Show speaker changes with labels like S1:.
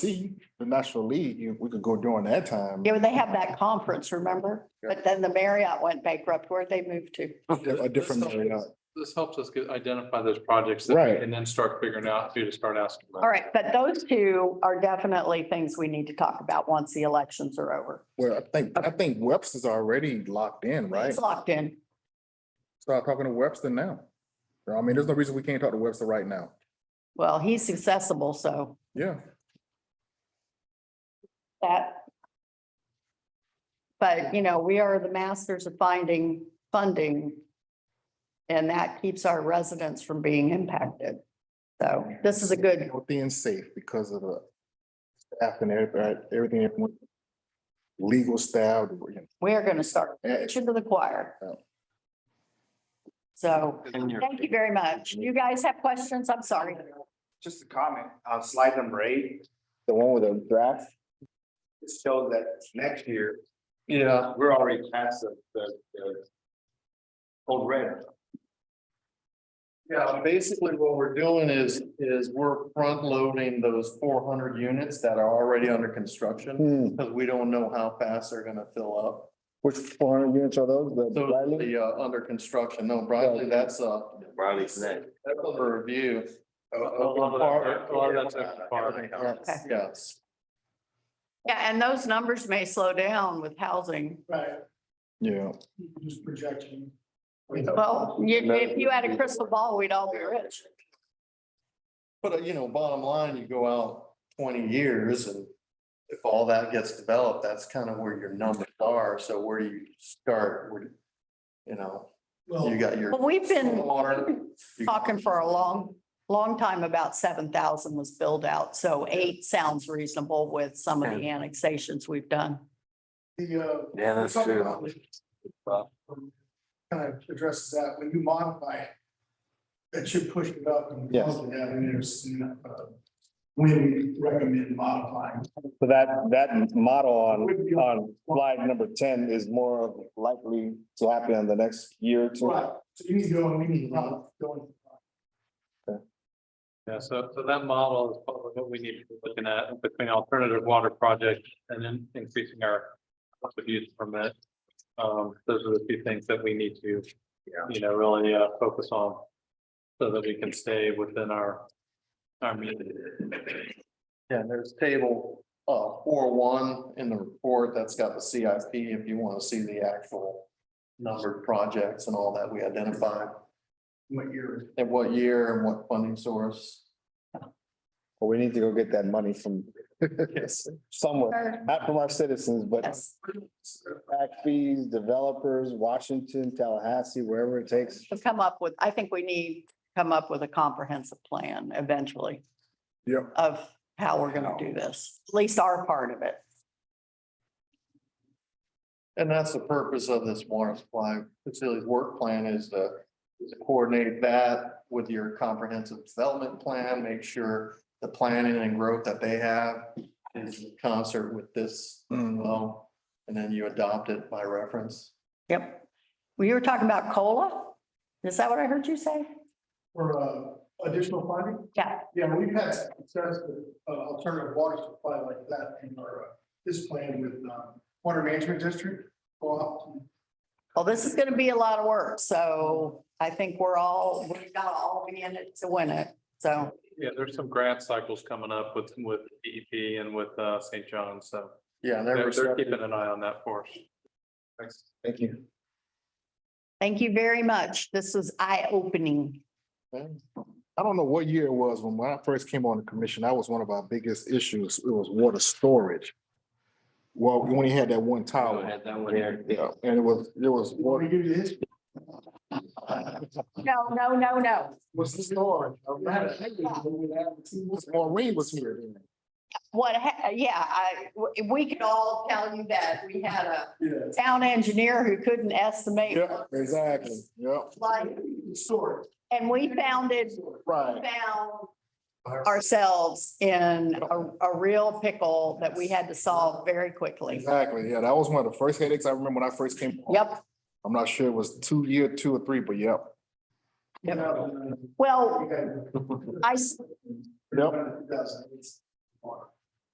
S1: see the National League, you- we could go during that time.
S2: Yeah, but they have that conference, remember? But then the Marriott went bankrupt. Where'd they move to?
S1: A different uh, area.
S3: This helps us get- identify those projects that
S1: Right.
S3: we can then start figuring out who to start asking. about.
S2: All right, but those two are definitely things we need to talk about once the elections are over.
S1: Well, I think, I think Webster's already locked in, right?
S2: It's locked in.
S1: Start talking to Webster now. I mean, there's no reason we can't talk to Webster right now.
S2: Well, he's accessible, so
S1: Yeah.
S2: that. But, you know, we are the masters of finding funding. And that keeps our residents from being impacted. So this is a good,
S1: Healthy and safe because of the staff and everything, everything. everyone- Legal staff, you know,
S2: we are going to start
S1: eh,
S2: preaching to the choir. So thank you very much. You guys have questions? I'm sorry.
S4: Just a comment, on slide number eight,
S1: the one with the draft.
S4: it shows that next year,
S3: Yeah,
S4: we're already past the, the, the old red.
S5: Yeah, basically what we're doing is, is we're front loading those four hundred units that are already under construction.
S6: Hmm,
S5: Because we don't know how fast they're gonna fill up.
S6: which four hundred units are those? The
S5: So
S6: Bradley?
S5: the, uh, under construction, no, Bradley, that's a.
S4: Riley's next.
S5: That's under review.
S3: a lot of that- a lot of that's open farm.
S2: Okay.
S5: Yes.
S2: Yeah, and those numbers may slow down with housing.
S1: Yeah.
S4: Just projection.
S5: Oh.
S2: Well, you- if you had a crystal ball, we'd all be rich.
S5: But, uh, you know, bottom line, you go out twenty years and if all that gets developed, that's kind of where your numbers are. So where do you start? Where do- You know, you got your.
S2: But we've been
S5: stormwater, you-
S2: talking for a long, long time about seven thousand was billed out. So eight sounds reasonable with some of the annexations we've done.
S7: The,
S4: Yeah,
S7: uh, something about
S4: Wow.
S7: Kind of addresses that, when you modify, that should push it up and
S6: Yes.
S7: probably have in there soon, uh, when we recommend modifying.
S6: So that, that model on,
S7: Would be-
S6: on slide number ten is more likely to happen in the next year or two.
S7: Right, so you need to go and we need to modify,
S5: Mm-hmm.
S7: going.
S3: Yeah, so, so that model is probably what we need to be looking at between alternative water projects and then increasing our public use permit. Um, those are the two things that we need to, you know, really, uh, focus on. So that we can stay within our, our meeting.
S5: Yeah, there's table, uh, four one in the report, that's got the CIP, if you want to see the actual numbered projects and all that we identified,
S7: What year?
S5: and what year and what funding source.
S6: But we need to go get that money from
S5: Yes.
S6: somewhere, not from our citizens, but
S2: Yes,
S6: back fees, developers, Washington, Tallahassee, wherever it takes.
S2: to come up with, I think we need to come up with a comprehensive plan eventually.
S1: Yep.
S2: Of how we're gonna do this, at least our part of it.
S5: And that's the purpose of this water supply facilities work plan is to is to coordinate that with your comprehensive development plan, make sure the planning and growth that they have is in concert with this
S1: Mm.
S6: Uh,
S5: well, and then you adopt it by reference.
S2: Yep. Well, you were talking about COLA? Is that what I heard you say?
S7: For, uh, additional funding?
S2: Yeah.
S7: Yeah, we've had success with uh, alternative water supply like that in our, uh, this plan with, um, Water Management District. Go out and
S2: Well, this is gonna be a lot of work, so I think we're all, we've got to all be in it to win it, so.
S3: Yeah, there's some grant cycles coming up with, with DEP and with, uh, St. John's, so
S5: Yeah, they're
S3: they're, they're
S5: receptive.
S3: keeping an eye on that for us.
S6: Thank you.
S2: Thank you very much. This was eye-opening.
S1: I don't know what year it was when when I first came on the commission, that was one of our biggest issues. It was water storage. Well, we only had that one tower.
S4: that one here.
S1: Yeah, and it was, it was.
S7: You want to give you his
S2: No, no, no, no.
S1: Was this storage? Maureen was here. then.
S2: What, ha- yeah, I, w- we could all tell you that we had a
S7: Yeah.
S2: town engineer who couldn't estimate.
S1: Yeah, exactly. Yep,
S2: Like,
S7: Sort.
S2: and we founded,
S1: right.
S2: found ourselves in a, a real pickle that we had to solve very quickly.
S1: Exactly. Yeah, that was one of the first headaches I remember when I first came. on.
S2: Yep.
S1: I'm not sure it was two, year two or three, but yep.
S2: Yep.
S7: No,
S2: Well,
S7: okay.
S2: I, s-
S1: Yep.
S7: Two thousand eight.